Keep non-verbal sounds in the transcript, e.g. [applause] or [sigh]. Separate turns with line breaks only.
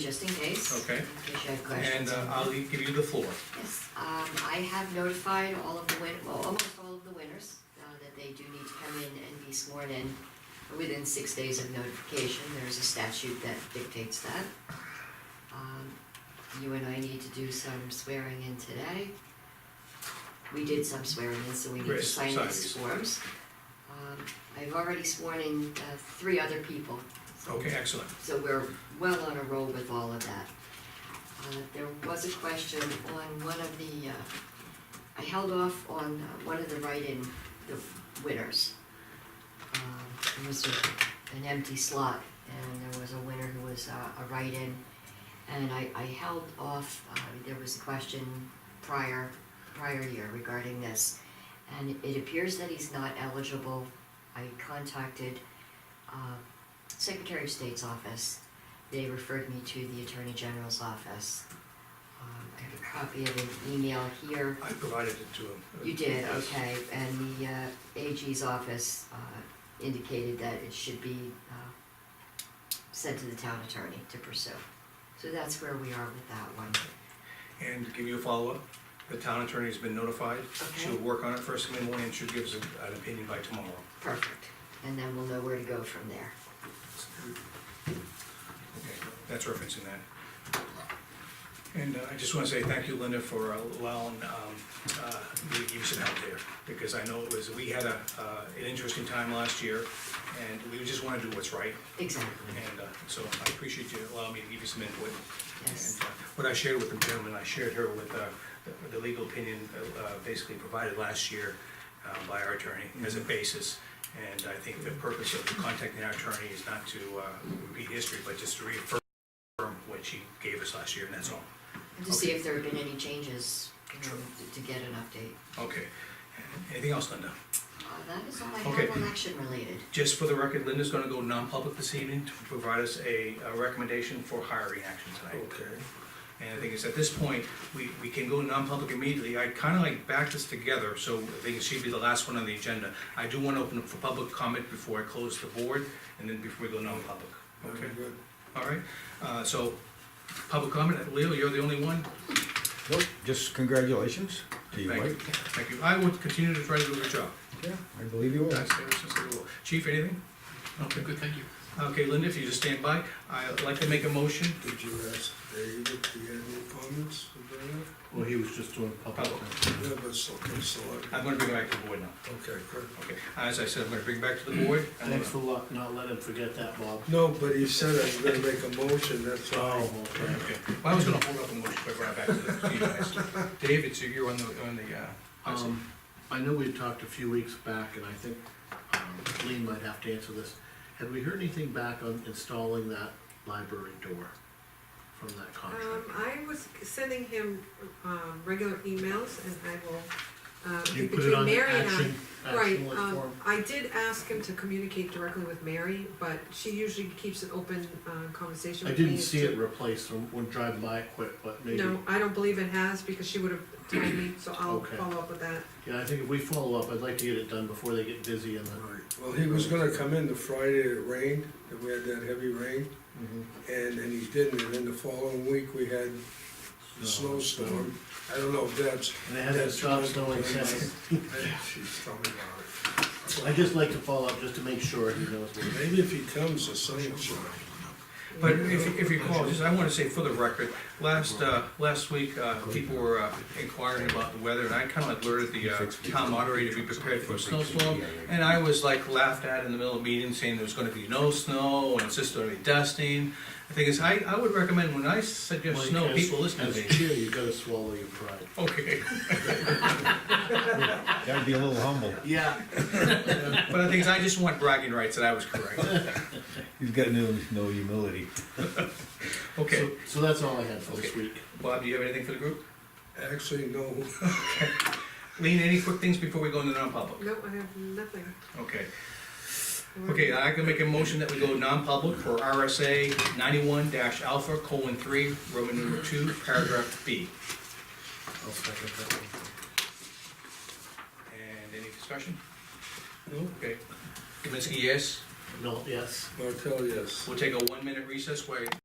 just in case.
Okay.
In case you have
And
questions.
uh, I'll leave- give you the floor.
Yes, um, I have notified all of the win, well, almost all of the winners, uh, that they do need to come in and be sworn in within six days of notification, there's a statute that dictates that. Um, you and I need to do some swearing in today. We did some swearing in, so we need to
Great,
sign
sign
these
these.
forms. Um, I've already sworn in, uh, three other people,
Okay, excellent.
so we're well on a roll with all of that. Uh, There was a question on one of the, uh, I held off on uh, one of the write-in, the winners. Um, It was a- an empty slot, and there was a winner who was uh, a write-in. And I, I held off, uh, there was a question prior, prior year regarding this. And it appears that he's not eligible. I contacted uh, Secretary of State's office. They referred me to the Attorney General's office. Um, I have a copy of an email here.
I provided it to him.
You did,
Yes.
okay, and the uh, AG's office uh, indicated that it should be uh, sent to the town attorney to pursue. So that's where we are with that one.
And to give you a follow-up, the town attorney's been notified. She'll
Okay.
work on it first thing in the morning and she'll give us an an opinion by tomorrow.
Perfect, and then we'll know where to go from there.
Okay, that's referencing that. And uh, I just wanna say thank you, Linda, for allowing, um, uh, me to give you some help there, because I know it was, we had a, uh, an interesting time last year, and we just wanna do what's right,
Exactly,
and, uh, so I appreciate you allowing me to give you some input.
yes,
And, uh, What I shared with the gentleman, I shared her with uh, the- the legal opinion uh, uh, basically provided last year uh, by our attorney as a basis. And I think the purpose of contacting our attorney is not to uh, repeat history, but just to reaffirm what she gave us last year, and that's all.
and to see if there have been any changes, you know, to- to get an update.
Okay. Anything else, Linda?
Uh, That is all I
Okay.
have election related.
Just for the record, Linda's gonna go non-public this evening to provide us a a recommendation for hiring action tonight.
Okay,
And the thing is, at this point, we, we can go non-public immediately. I kind of like back this together, so I think she'd be the last one on the agenda. I do want to open up for public comment before I close the board, and then before we go non-public.
okay,
Okay,
good.
all right? Uh, so, public comment, Leo, you're the only one?
Well, just congratulations to you,
Thank you.
Mike.
Thank you. I will continue to try to do a good job.
Yeah, I believe you will.
[laughs] That's ever since I was little. Chief, anything? Okay,
Good, thank you.
Okay, Linda, if you just stand by, I'd like to make a motion.
Did you ask David if he had any comments about
Well, he was just doing public.
it? Yeah, but it's okay, so I,
I'm gonna bring it back to the board now.
okay, good.
Okay, as I said, I'm gonna bring it back to the board. I'm gonna-
Thanks for lo- not letting him forget that, Bob.
No, but he said I'm gonna make a motion, that's
Oh,
all.
okay.
Okay, well, I was gonna hold up a motion, but right back to the- to you guys. David, so you're on the, on the, uh, I see.
Um, I know we talked a few weeks back, and I think, um, Lean might have to answer this. Had we heard anything back on installing that library door from that
Um,
contract?
I was sending him, um, regular emails and I will, um,
You put it
between
on the
Mary and I.
action,
Right,
action alert
um,
form?
I did ask him to communicate directly with Mary, but she usually keeps an open, uh, conversation
I
with me.
didn't
as
see
to-
it replaced, I'm, we're driving by it quick, but maybe.
No, I don't believe it has because she would have told me, so I'll
Okay.
follow up with that.
Yeah, I think if we follow up, I'd like to get it done before they get busy in the.
Right, well, he was gonna come in the Friday it rained, and we had that heavy rain,
Mhm.
and, and he didn't, and then the following week we had the
Snow.
snowstorm. I don't know if that's.
And it hasn't
that's
stopped
what-
snowing since.
She's telling about
I'd just like to follow up just to make sure he knows what.
it. Maybe if he comes, the sun will shine.
But if, you- if you recall, just, I wanna say for the record, last, uh, last week, uh, people were uh, inquiring about the weather, and I kinda alerted the, uh, town moderator to be prepared for a snowstorm. And I was like laughed at in the middle of a meeting, saying there's gonna be no snow, and it's just gonna be dusting. The thing is, I, I would recommend, when I suggest
Mike,
snow,
as-
people listen
As
to me.
chair, you gotta swallow your pride.
Okay.
Gotta be a little humble.
Yeah.
But the thing is, I just want bragging rights that I was correct.
You've got no, no humility.
Okay,
So, so that's all I had for this
Okay.
week.
Bob, do you have anything for the group?
Actually, no,
Lean, any quick things before we go into non-public?
No, I have nothing.
Okay, okay, I can make a motion that we go non-public for RSA ninety-one dash alpha colon three, Roman number two, paragraph B.
I'll second that one.
And any discussion?
no,
Okay. Kaminsky, yes.
No, yes.
Martel, yes.
We'll take a one-minute recess while